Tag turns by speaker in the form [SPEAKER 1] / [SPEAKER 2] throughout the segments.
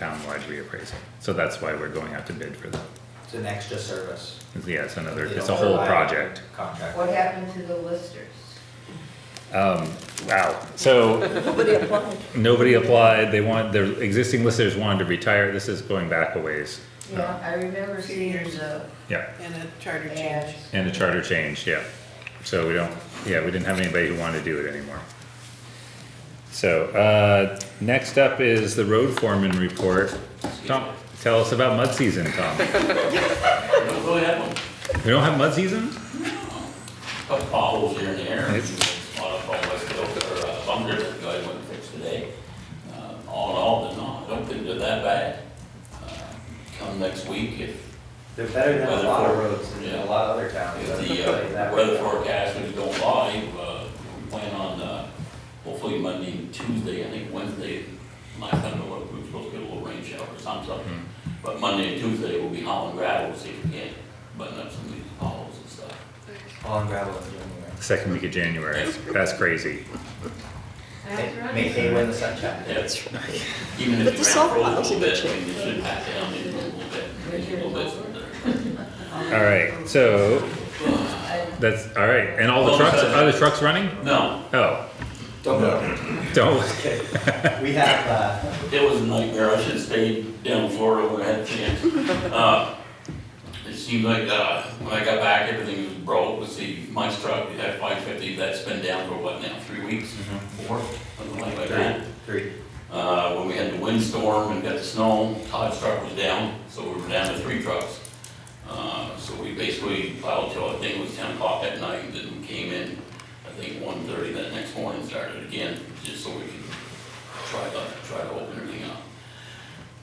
[SPEAKER 1] town-wide reappraisal. So that's why we're going out to bid for that.
[SPEAKER 2] It's an extra service.
[SPEAKER 1] Yeah, it's another,
[SPEAKER 2] They
[SPEAKER 1] it's a
[SPEAKER 2] don't
[SPEAKER 1] whole
[SPEAKER 2] provide
[SPEAKER 1] project.
[SPEAKER 2] Contract.
[SPEAKER 3] What happened to the listers?
[SPEAKER 1] Um, wow, so
[SPEAKER 4] Nobody applied.
[SPEAKER 1] nobody applied, they want, the existing listers wanted to retire, this is going back a ways.
[SPEAKER 3] Yeah, I remember seeing the
[SPEAKER 1] Yeah,
[SPEAKER 4] And a charter
[SPEAKER 3] ads.
[SPEAKER 4] change.
[SPEAKER 1] and the charter change, yeah. So we don't, yeah, we didn't have anybody who wanted to do it anymore. So, uh, next up is the road foreman report. Tom, tell us about mud season, Tom.
[SPEAKER 5] We don't really have them.
[SPEAKER 1] We don't have mud season?
[SPEAKER 5] Couple potholes here and there.
[SPEAKER 1] Nice.
[SPEAKER 5] A lot of them West Hill or uh, Bum River, the guy went and fixed today. Uh, All in all, they're not, I don't think they're that bad. Uh, Come next week, if,
[SPEAKER 2] They're better than a lot of
[SPEAKER 5] Weatherford.
[SPEAKER 2] roads in
[SPEAKER 5] Yeah.
[SPEAKER 2] a lot of other towns.
[SPEAKER 5] if
[SPEAKER 2] I'll
[SPEAKER 5] the
[SPEAKER 2] tell you that.
[SPEAKER 5] uh, weather forecast is going live, uh, we plan on, uh, hopefully Monday, and Tuesday, I think Wednesday, last time I looked, we were supposed to get a little rain shower or something. But Monday and Tuesday, we'll be hauling gravel, see if we can button up some of these potholes and stuff.
[SPEAKER 2] On gravel in January.
[SPEAKER 1] Second week of January, that's crazy.
[SPEAKER 2] May- May they win the sunshine.
[SPEAKER 5] That's right. Even if
[SPEAKER 4] the
[SPEAKER 5] you ran
[SPEAKER 4] salt
[SPEAKER 5] for a
[SPEAKER 4] bottles
[SPEAKER 5] little
[SPEAKER 4] in the
[SPEAKER 5] bit, I
[SPEAKER 4] chair.
[SPEAKER 5] mean, you should pat down maybe a little bit, maybe a little bit.
[SPEAKER 1] All right, so that's all right. And all the trucks are the trucks running?
[SPEAKER 5] No,
[SPEAKER 1] Oh,
[SPEAKER 2] Don't go.
[SPEAKER 1] don't.
[SPEAKER 2] We have, uh,
[SPEAKER 5] it was a nightmare, I should've stayed down in Florida when I had a chance. Uh, It seemed like, uh, when I got back, everything was broke, let's see, my truck, that five fifty, that's been down for what now, three weeks? Four, something like that.
[SPEAKER 2] three.
[SPEAKER 5] Uh, when we had the windstorm and got the snow, Todd's truck was down, so we were down to three trucks. Uh, so we basically plowed till, I think it was ten o'clock at night, and then we came in, I think one thirty that next morning, started again, just so we could try to, try to open everything up.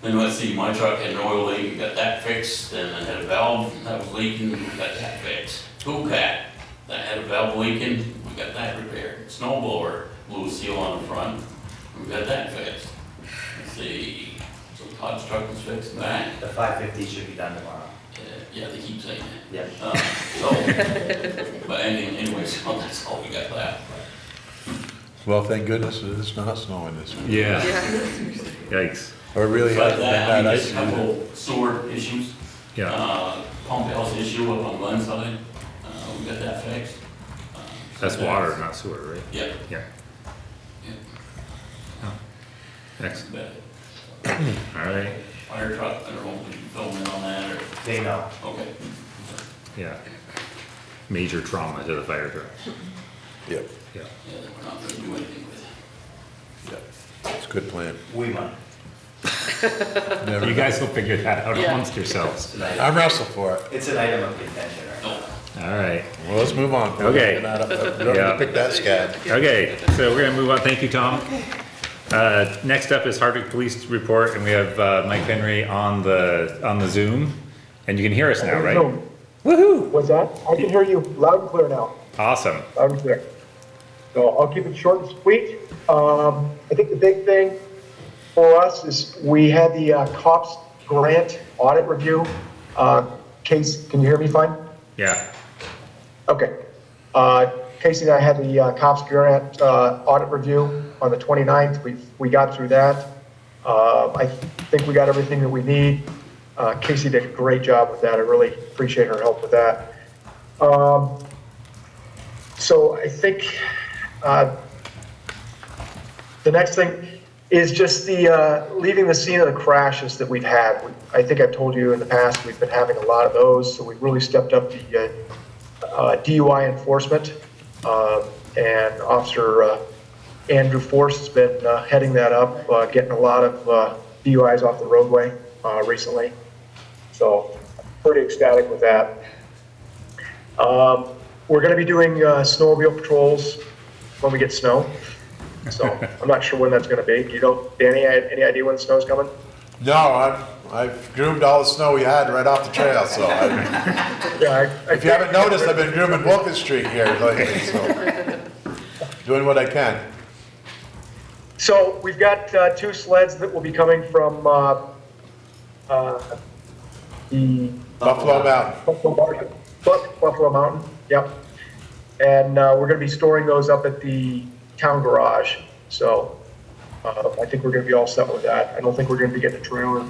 [SPEAKER 5] Then let's see, my truck had an oil leak, we got that fixed, and I had a valve that was leaking, we got that fixed. Cool cat, that had a valve leaking, we got that repaired. Snow blower blew a seal on the front, we got that fixed. Let's see, so Todd's truck was fixed, that,
[SPEAKER 2] The five fifty should be done tomorrow.
[SPEAKER 5] uh, yeah, they keep saying that.
[SPEAKER 2] Yeah.
[SPEAKER 5] Uh, So, but any- anyway, so that's all we got left.
[SPEAKER 6] Well, thank goodness it is not snowing this week.
[SPEAKER 1] Yeah. Yikes.
[SPEAKER 6] I really
[SPEAKER 5] But
[SPEAKER 6] haven't
[SPEAKER 5] that,
[SPEAKER 6] had
[SPEAKER 5] I mean, just a
[SPEAKER 6] ice. either.
[SPEAKER 5] couple sewer issues.
[SPEAKER 1] Yeah.
[SPEAKER 5] Uh, Pump house issue up on one side, uh, we got that fixed. Uh, so
[SPEAKER 1] That's water, not sewer, right?
[SPEAKER 5] Yeah,
[SPEAKER 1] Yeah.
[SPEAKER 5] yeah,
[SPEAKER 1] Excellent.
[SPEAKER 5] but
[SPEAKER 1] All right.
[SPEAKER 5] fire truck, I don't know if you can fill in on that or,
[SPEAKER 2] They know.
[SPEAKER 5] okay.
[SPEAKER 1] Yeah. Major trauma to the fire truck.
[SPEAKER 6] Yep,
[SPEAKER 1] Yeah.
[SPEAKER 5] Yeah, that we're not gonna do anything with it.
[SPEAKER 6] yep. It's a good plan.
[SPEAKER 2] We might.
[SPEAKER 6] Never
[SPEAKER 1] You
[SPEAKER 6] know.
[SPEAKER 1] guys will figure that out amongst yourselves.
[SPEAKER 2] It's an
[SPEAKER 5] Uh,
[SPEAKER 2] item-
[SPEAKER 6] I'm Russell for it.
[SPEAKER 2] It's an item of contention, right?
[SPEAKER 5] No,
[SPEAKER 1] All right.
[SPEAKER 6] Well, let's move on.
[SPEAKER 1] Okay.
[SPEAKER 6] We're not up- We don't need
[SPEAKER 1] Yeah.
[SPEAKER 6] to pick that scab.
[SPEAKER 1] Okay, so we're gonna move on. Thank you, Tom. Uh, next up is Hardwick Police Report and we have, uh, Mike Henry on the, on the Zoom. And you can hear us now, right?
[SPEAKER 7] Zoom.
[SPEAKER 1] Woohoo!
[SPEAKER 7] What's that? I can hear you loud and clear now,
[SPEAKER 1] Awesome.
[SPEAKER 7] loud and clear. So I'll keep it short and sweet. Um, I think the big thing for us is we had the uh, COPS grant audit review. Uh, Case, can you hear me fine?
[SPEAKER 1] Yeah.
[SPEAKER 7] Okay. Uh, Casey and I had the uh, COPS grant uh, audit review on the 29th. We, we got through that. Uh, I think we got everything that we need. Uh, Casey did a great job with that. I really appreciate her help with that. Um, So I think uh, the next thing is just the, uh, leaving the scene of the crashes that we've had. We- I think I've told you in the past, we've been having a lot of those, so we really stepped up the uh, uh, DUI enforcement, uh, and Officer uh, Andrew Force has been uh, heading that up, uh, getting a lot of uh, DUIs off the roadway uh, recently. So pretty ecstatic with that. Um, We're going to be doing uh, snowmobile patrols when we get snow. So I'm not sure when that's going to be. You know, Danny, I- any idea when the snow's coming?
[SPEAKER 6] No, I, I groomed all the snow we had right off the trail, so I-
[SPEAKER 7] Yeah.
[SPEAKER 6] if you haven't noticed, I've been grooming Wilkins Street here lately, so. Doing what I can.
[SPEAKER 7] So we've got uh, two sleds that will be coming from uh, uh, the
[SPEAKER 6] Buffalo Mountain.
[SPEAKER 7] Buffalo Mountain, Buff- Buffalo Mountain, yep. And uh, we're going to be storing those up at the town garage. So Uh, I think we're gonna be all set with that. I don't think we're gonna be getting a trailer